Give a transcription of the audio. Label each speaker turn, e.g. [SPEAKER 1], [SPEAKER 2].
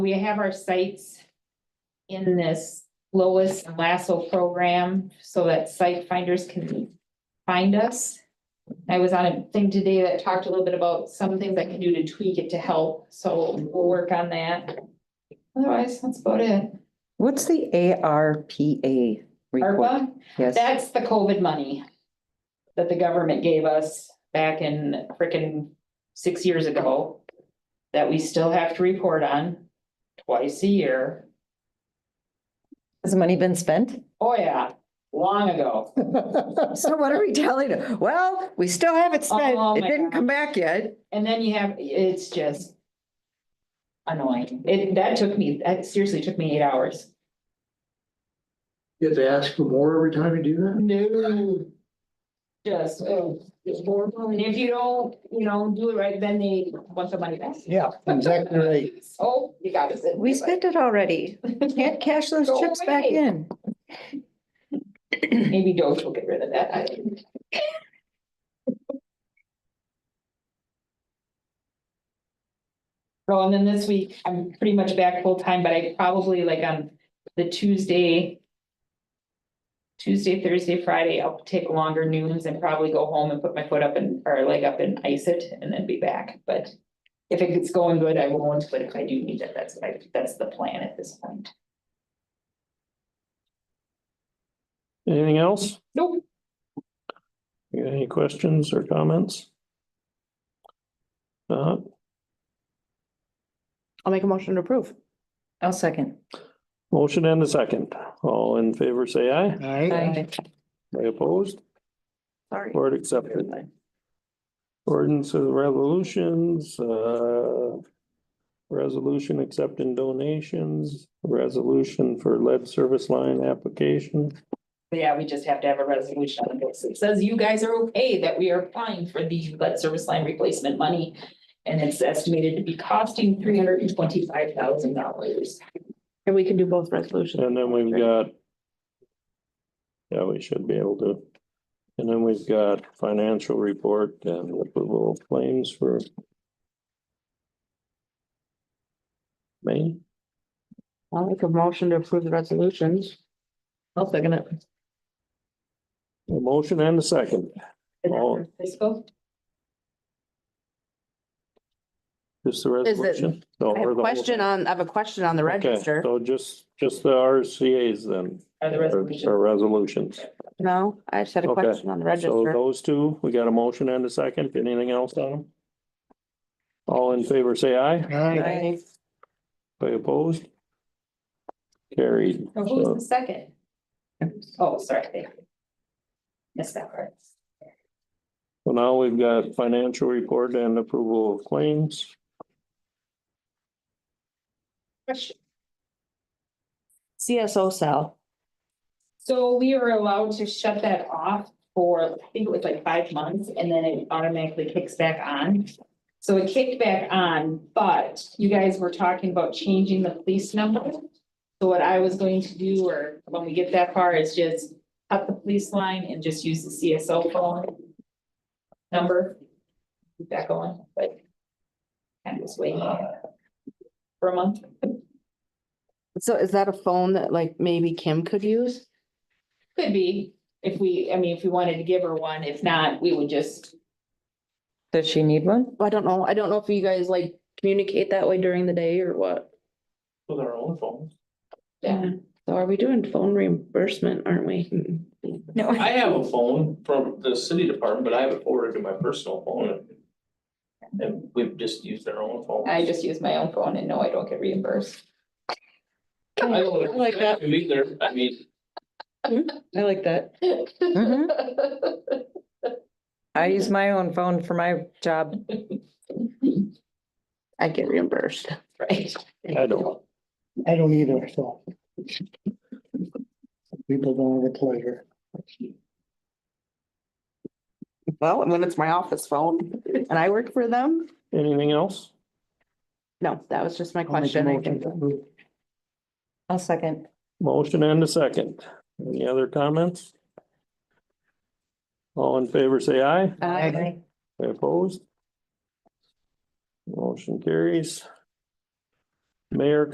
[SPEAKER 1] We have our sites in this Lois and Lasso program so that site finders can find us. I was on a thing today that talked a little bit about some things I can do to tweak it to help, so we'll work on that. Otherwise, that's about it.
[SPEAKER 2] What's the ARPA report?
[SPEAKER 1] ARPA?
[SPEAKER 2] Yes,
[SPEAKER 1] That's the COVID money that the government gave us back in frickin' six years ago that we still have to report on twice a year.
[SPEAKER 2] has the money been spent?
[SPEAKER 1] Oh, yeah, long ago.
[SPEAKER 2] So what are we telling them? Well, we still haven't
[SPEAKER 1] Oh,
[SPEAKER 2] spent, it
[SPEAKER 1] my
[SPEAKER 2] didn't
[SPEAKER 1] God.
[SPEAKER 2] come back yet.
[SPEAKER 1] And then you have, it's just annoying. It, that took me, that seriously took me eight hours.
[SPEAKER 3] You have to ask for more every time you do that?
[SPEAKER 1] No. Just, oh, it's horrible. And if you don't, you know, do it right, then they want the money back.
[SPEAKER 3] Yeah, exactly right.
[SPEAKER 1] Oh, you got it.
[SPEAKER 2] We spent it already. Can't cash those
[SPEAKER 1] Go
[SPEAKER 2] chips back
[SPEAKER 1] away.
[SPEAKER 2] in.
[SPEAKER 1] Maybe Doge will get rid of that. I don't know. Oh, and then this week, I'm pretty much back full time, but I probably like on the Tuesday. Tuesday, Thursday, Friday, I'll take longer noons and probably go home and put my foot up and, or leg up and ice it and then be back, but. If it's going good, I won't, but if I do need it, that's, what I that's the plan at this point.
[SPEAKER 4] Anything else?
[SPEAKER 1] Nope.
[SPEAKER 4] You got any questions or comments? Uh,
[SPEAKER 5] I'll make a motion to approve.
[SPEAKER 2] I'll second.
[SPEAKER 4] motion and a second. All in favor, say aye.
[SPEAKER 2] Aye.
[SPEAKER 4] Aye opposed?
[SPEAKER 5] Sorry.
[SPEAKER 4] Board accepted. Ordinance of resolutions, uh. Resolution accepting donations, resolution for lead service line application.
[SPEAKER 1] Yeah, we just have to have a resolution on this. It says you guys are okay that we are applying for the lead service line replacement money. And it's estimated to be costing three hundred and twenty-five thousand dollars.
[SPEAKER 5] And we can do both resolutions.
[SPEAKER 4] And then we've got. Yeah, we should be able to. And then we've got financial report and approval of claims for. May,
[SPEAKER 5] I'll make a motion to approve the resolutions. I'll second it.
[SPEAKER 4] a motion and a second, Oh.
[SPEAKER 1] Fiscal,
[SPEAKER 4] just the
[SPEAKER 5] Is it-
[SPEAKER 4] resolution.
[SPEAKER 5] I have a question on, I have a question on the register.
[SPEAKER 4] So just, just the RCA's then.
[SPEAKER 1] or the
[SPEAKER 4] Or
[SPEAKER 1] resolution.
[SPEAKER 4] resolutions.
[SPEAKER 5] No, I just had a
[SPEAKER 4] Okay.
[SPEAKER 5] question on the
[SPEAKER 4] So
[SPEAKER 5] register.
[SPEAKER 4] those two, we got a motion and a second, anything else on them? All in favor, say aye.
[SPEAKER 5] Aye.
[SPEAKER 4] By opposed? Carried.
[SPEAKER 1] Now, Who was the second? Oh, sorry. thank you. Missed that part.
[SPEAKER 4] So now we've got financial report and approval of claims.
[SPEAKER 1] Question.
[SPEAKER 5] CSO cell.
[SPEAKER 1] So we were allowed to shut that off for, I think it was like five months, and then it automatically kicks back on. So it kicked back on, but you guys were talking about changing the police number. So what I was going to do, or when we get that far, is just cut the police line and just use the CSO phone. Number. Keep that going, but. I'm just waiting. For a month.
[SPEAKER 5] So is that a phone that like maybe Kim could use?
[SPEAKER 1] Could be, if we, I mean, if we wanted to give her one, if not, we would just
[SPEAKER 2] Does she need one?
[SPEAKER 5] I don't know. I don't know if you guys like communicate that way during the day or what.
[SPEAKER 4] With our own phones.
[SPEAKER 1] Yeah.
[SPEAKER 5] So are we doing phone reimbursement, aren't we?
[SPEAKER 6] I have a phone from the city department, but I have it forwarded to my personal phone. And we've just used our own phone.
[SPEAKER 1] I just use my own phone and no, I don't get reimbursed.
[SPEAKER 6] I don't
[SPEAKER 5] like that.
[SPEAKER 6] understand Either, I mean,
[SPEAKER 5] I like that.
[SPEAKER 2] Mm-hmm. I use my own phone for my job.
[SPEAKER 5] I get reimbursed.
[SPEAKER 1] Right.
[SPEAKER 4] I don't.
[SPEAKER 3] I don't either, so. People don't have the pleasure.
[SPEAKER 5] Well, and when it's my office phone and I work for them,
[SPEAKER 4] Anything else?
[SPEAKER 5] no, that was just my
[SPEAKER 3] I'll make a
[SPEAKER 5] question. I
[SPEAKER 3] motion
[SPEAKER 5] think.
[SPEAKER 3] to approve.
[SPEAKER 2] I'll second.
[SPEAKER 4] Motion and a second. Any other comments? All in favor, say aye.
[SPEAKER 5] Uh,
[SPEAKER 4] Aye Opposed? Motion carries. Mayor